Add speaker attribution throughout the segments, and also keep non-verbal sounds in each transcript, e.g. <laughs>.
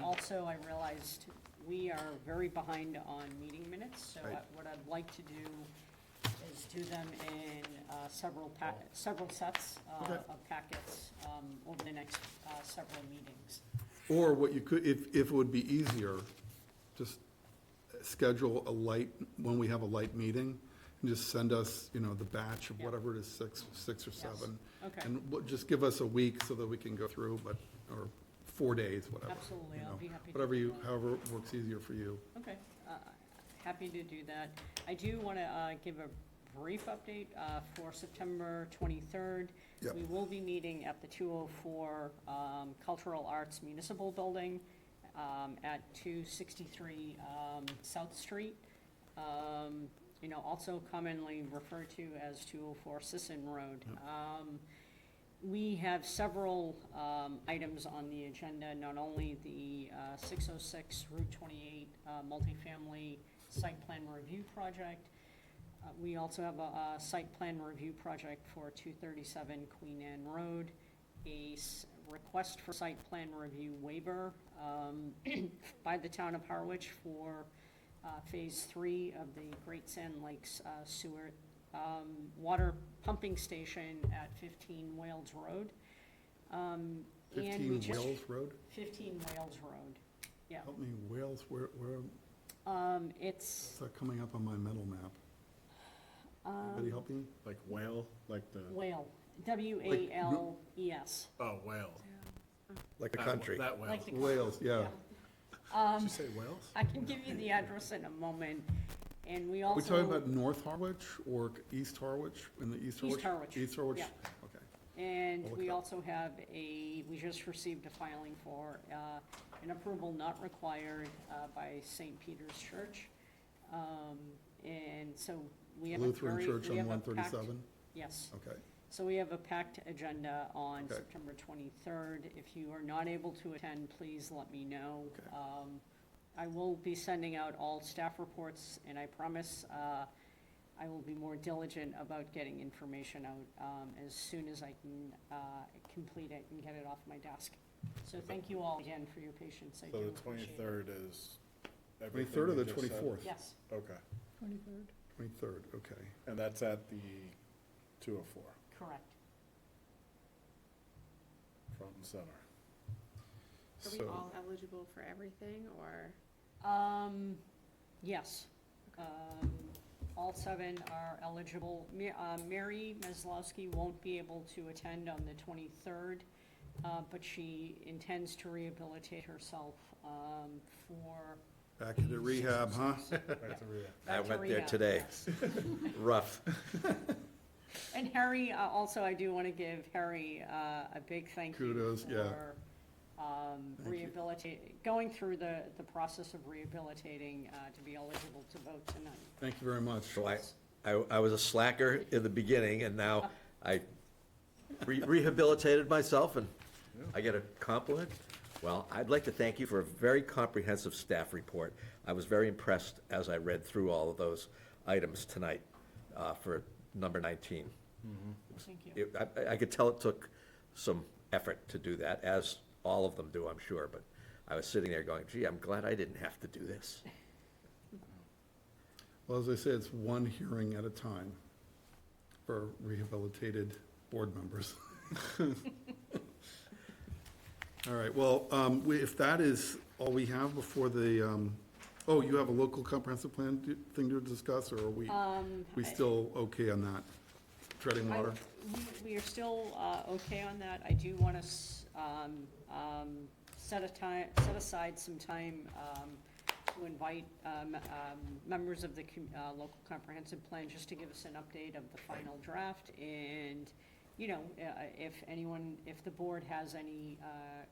Speaker 1: Mm.
Speaker 2: also, I realized we are very behind on meeting minutes, so
Speaker 1: Right.
Speaker 2: I- what I'd like to do is do them in uh, several pa, several sets uh,
Speaker 1: Oh. Okay.
Speaker 2: of packets um, over the next uh, several meetings.
Speaker 1: Or what you could, if, if it would be easier, just schedule a light, when we have a light meeting, and just send us, you know, the batch of
Speaker 2: Yeah.
Speaker 1: whatever it is, six, six or seven.
Speaker 2: Okay.
Speaker 1: And we'll- just give us a week so that we can go through, but, or four days, whatever.
Speaker 2: Absolutely,
Speaker 1: you
Speaker 2: I'll
Speaker 1: know,
Speaker 2: be happy to
Speaker 1: Whatever
Speaker 2: do
Speaker 1: you,
Speaker 2: that.
Speaker 1: however works easier for you.
Speaker 2: Okay, uh, happy to do that. I do want to give a brief update uh, for September 23rd.
Speaker 1: Yep.
Speaker 2: We will be meeting at the 204 um, Cultural Arts Municipal Building um, at 263 um, South Street, um, you know, also commonly referred to as 204 Sisson Road. Um, we have several um, items on the agenda, not only the uh, 606 Route 28 uh, multifamily site plan review project. Uh, We also have a a site plan review project for 237 Queen Anne Road, a s- request for site plan review waiver um, <clears throat> by the town of Harwich for uh, Phase 3 of the Great Sand Lakes uh, sewer um, water pumping station at 15 Wales Road. Um, and we
Speaker 1: Fifteen
Speaker 2: just-
Speaker 1: Wales Road?
Speaker 2: 15 Wales Road, yeah.
Speaker 1: Help me, Wales, where, where,
Speaker 2: Um, It's,
Speaker 1: is that coming up on my mental map?
Speaker 2: Um,
Speaker 1: Anybody help me?
Speaker 3: Like whale, like the,
Speaker 2: Whale, W-A-L-E-S.
Speaker 3: oh, whale.
Speaker 1: Like
Speaker 3: That- That whale.
Speaker 2: Like the- Um,
Speaker 3: Did
Speaker 1: Wales, yeah.
Speaker 3: you say whales?
Speaker 2: I can give you the address in a moment, and we also.
Speaker 1: Are we talking about North Harwich or East Harwich, in the East Harwich?
Speaker 2: East Harwich,
Speaker 1: East Harwich,
Speaker 2: yeah.
Speaker 1: Oh, okay.
Speaker 2: And
Speaker 1: I'll look
Speaker 2: we
Speaker 1: it up.
Speaker 2: also have a, we just received a filing for uh, an approval not required uh, by St. Peter's Church. Um, And so we have a
Speaker 1: Lutheran
Speaker 2: very.
Speaker 1: Church
Speaker 2: we
Speaker 1: on
Speaker 2: have a packed-
Speaker 1: 137?
Speaker 2: Yes.
Speaker 1: Okay.
Speaker 2: So we have a packed agenda on
Speaker 1: Okay.
Speaker 2: September 23rd. If you are not able to attend, please let me know.
Speaker 1: Okay.
Speaker 2: Um, I will be sending out all staff reports, and I promise uh, I will be more diligent about getting information out um, as soon as I can uh, complete it and get it off my desk. So thank you all again for your patience. I
Speaker 3: So
Speaker 2: do
Speaker 3: the
Speaker 2: appreciate it.
Speaker 3: twenty-third is everything
Speaker 1: 23rd or
Speaker 3: you
Speaker 1: the
Speaker 3: just said?
Speaker 1: 24th?
Speaker 2: Yes,
Speaker 3: Okay,
Speaker 1: 23rd, okay.
Speaker 3: and that's at the two oh four,
Speaker 2: correct.
Speaker 3: front and <laughs> center.
Speaker 4: Are we
Speaker 1: So-
Speaker 4: all eligible for everything, or?
Speaker 2: Um, yes. Um, all seven are eligible. Ma- uh, Mary Meslowski won't be able to attend on the twenty-third, uh, but she intends to rehabilitate herself, um, for.
Speaker 1: Back into rehab, huh?
Speaker 5: I went there
Speaker 2: bacteria,
Speaker 5: today.
Speaker 2: yes.
Speaker 5: <laughs> Rough.
Speaker 2: <laughs> And Harry, uh, also, I do want to give Harry uh, a big thank you.
Speaker 1: Kudos, yeah.
Speaker 2: for, um,
Speaker 1: Thank you.
Speaker 2: rehabilitate, going through the, the process of rehabilitating uh, to be eligible to vote tonight.
Speaker 1: Thank you very much.
Speaker 5: So I, I, I was a slacker in the beginning and now I re- rehabilitated myself and I get a compliment. Well, I'd like to thank you for a very comprehensive staff report. I was very impressed as I read through all of those items tonight, uh, for number nineteen.
Speaker 2: Thank you.
Speaker 5: It- I- I, I could tell it took some effort to do that, as all of them do, I'm sure, but I was sitting there going, gee, I'm glad I didn't have to do this.
Speaker 1: Well, as I say, it's one hearing at a time for rehabilitated board members. <laughs> All right, well, um, we- if that is all we have before the, um, oh, you have a local comprehensive plan to- thing to discuss, or are we, we still okay on that? Treading
Speaker 2: I-
Speaker 1: water?
Speaker 2: we- We are still uh, okay on that. I do want to um, set a time, set aside some time um, to invite um, um, members of the com- uh, local comprehensive plan just to give us an update of the final draft. And, you know, uh, if anyone, if the board has any uh,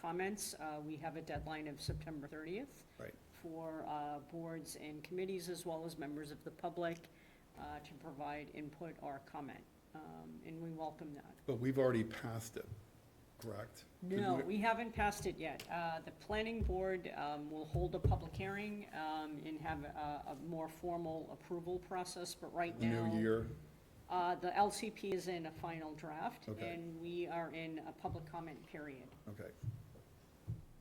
Speaker 2: comments, uh, we have a deadline of September 30th
Speaker 1: Right.
Speaker 2: for uh, boards and committees, as well as members of the public, uh, to provide input or comment, Um, and we welcome that.
Speaker 1: But we've already passed it, correct?
Speaker 2: No, we haven't passed it yet. Uh, The planning board um, will hold a public hearing um, and have a a more formal approval process, but right
Speaker 1: The
Speaker 2: now.
Speaker 1: New year,
Speaker 2: uh, The LCP is in a final draft,
Speaker 1: Okay.
Speaker 2: and we are in a public comment period.
Speaker 1: okay.